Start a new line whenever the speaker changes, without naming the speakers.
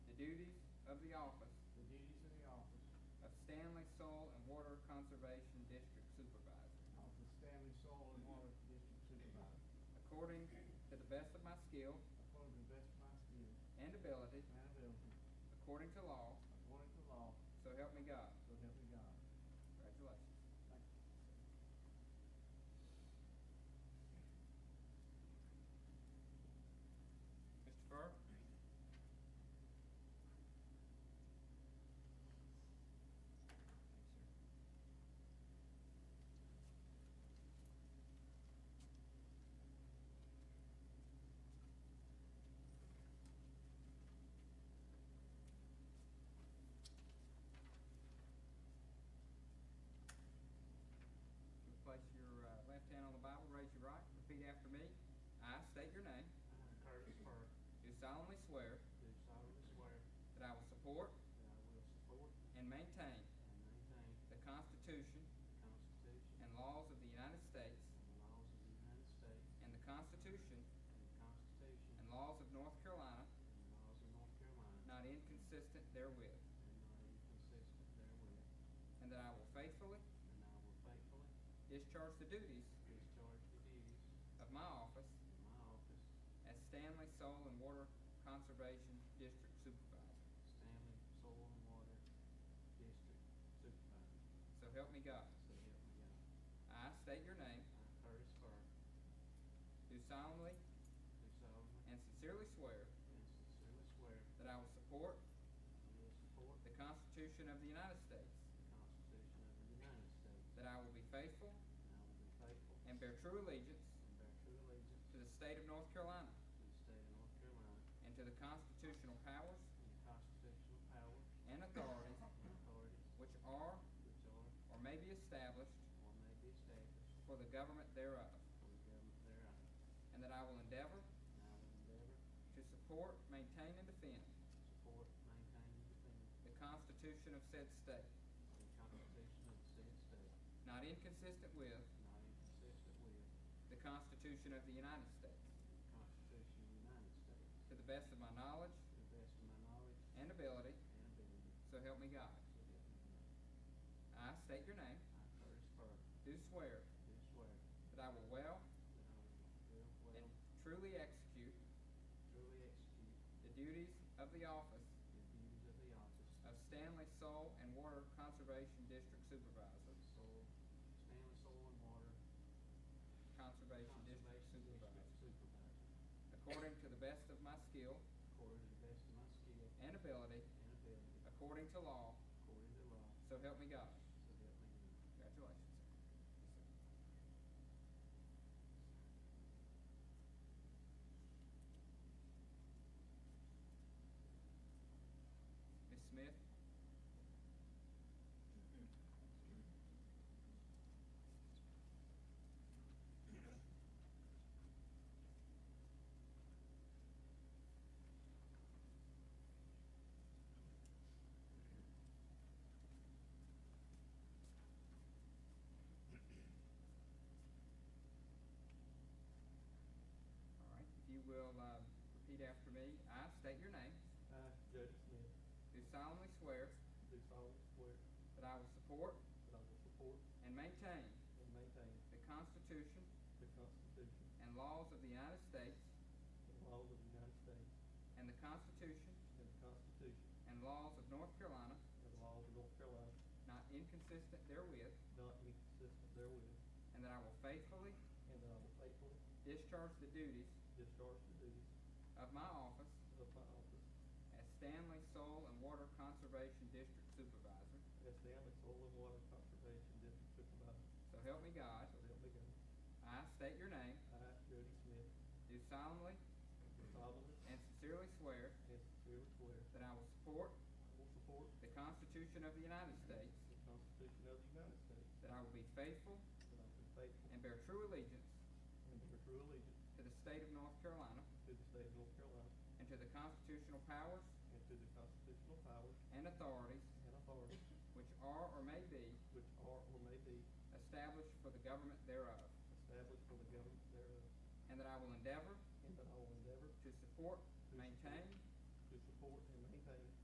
of the office
the duties of the office
of Stanley Soil and Water Conservation District Supervisor,
of the Stanley Soil and Water District Supervisor,
according to the best of my skill
according to the best of my skill
and ability,
and ability,
according to law,
according to law,
so help me God.
so help me God.
Congratulations.
Thank you.
Mr. Burke? Place your uh, left hand on the Bible, raise your right, repeat after me. I state your name.
I, Curtis Burke,
Do solemnly swear
do solemnly swear
that I will support
that I will support
and maintain
and maintain
the Constitution
the
and
Constitution
laws of the United States
and the laws of the United States
and the Constitution
and the Constitution
and laws of North Carolina,
and the laws of North Carolina,
not inconsistent therewith,
and not inconsistent therewith,
and that I will faithfully
and I will faithfully
discharge the duties
discharge the duties
of my office
of my office,
as Stanley Soil and Water Conservation District Supervisor.
Stanley Soil and Water District Supervisor,
So help me God.
so help me
I
God.
state your name,
I, Curtis Burke,
do solemnly
do solemnly
and sincerely swear
and sincerely swear
that I will support
that I will support
the Constitution of the United States,
the Constitution of the United States,
that I will be faithful
and I will be faithful
and bear true allegiance
and bear true allegiance
to the state of North Carolina
to the state of North Carolina
and to the constitutional powers
and the constitutional powers
and authorities
and authorities
which are
which are
or may be established
or may be established
for the government thereof,
for the government thereof,
and that I will endeavor
and I will endeavor
to support, maintain, and defend
to support, maintain, and defend
the Constitution of said state,
The Constitution of the said state,
not inconsistent with
not inconsistent with
the Constitution of the United States,
the Constitution of the United States,
to the best of my knowledge
to the best of my knowledge
and ability,
and ability,
so help me God.
so help me God.
I state your name,
I, Curtis Burke,
do swear
do swear
that I will well
that I will well,
and
well,
truly execute
truly execute
the duties of the office
the duties of the office
of Stanley Soil and Water Conservation District Supervisor,
of Soil, Stanley Soil and Water
Conservation District
Conservation
Supervisor,
District Supervisor,
according to the best of my skill
according to the best of my skill
and ability,
and ability,
according to law,
according to law,
so help me God.
so help me God.
Congratulations. Ms. Smith? All right, if you will, uh, repeat after me. I state your name.
I, Jody Smith,
Do solemnly swear
do solemnly swear
that I will support
that I will support
and maintain
and maintain
the Constitution
the Constitution
and laws of the United States
and laws of the United States
and the Constitution
and the Constitution
and laws of North Carolina,
and the laws of North Carolina,
not inconsistent therewith,
not inconsistent therewith,
and that I will faithfully
and that I will faithfully
discharge the duties
discharge the duties
of my office
of my office
as Stanley Soil and Water Conservation District Supervisor.
as Stanley Soil and Water Conservation District Supervisor.
So help me God.
So help me God.
I state your name.
I, Jody Smith,
Do solemnly
do solemnly
and sincerely swear
and sincerely swear
that I will support
I will support
the Constitution of the United States,
the Constitution of the United States,
that I will be faithful
that I will be faithful
and bear true allegiance
and bear true allegiance
to the state of North Carolina
to the state of North Carolina,
and to the constitutional powers
And to the constitutional powers
and authorities
and authorities
which are or may be
which are or may be
established for the government thereof,
established for the government thereof.
and that I will endeavor
And that I will endeavor
to support, maintain,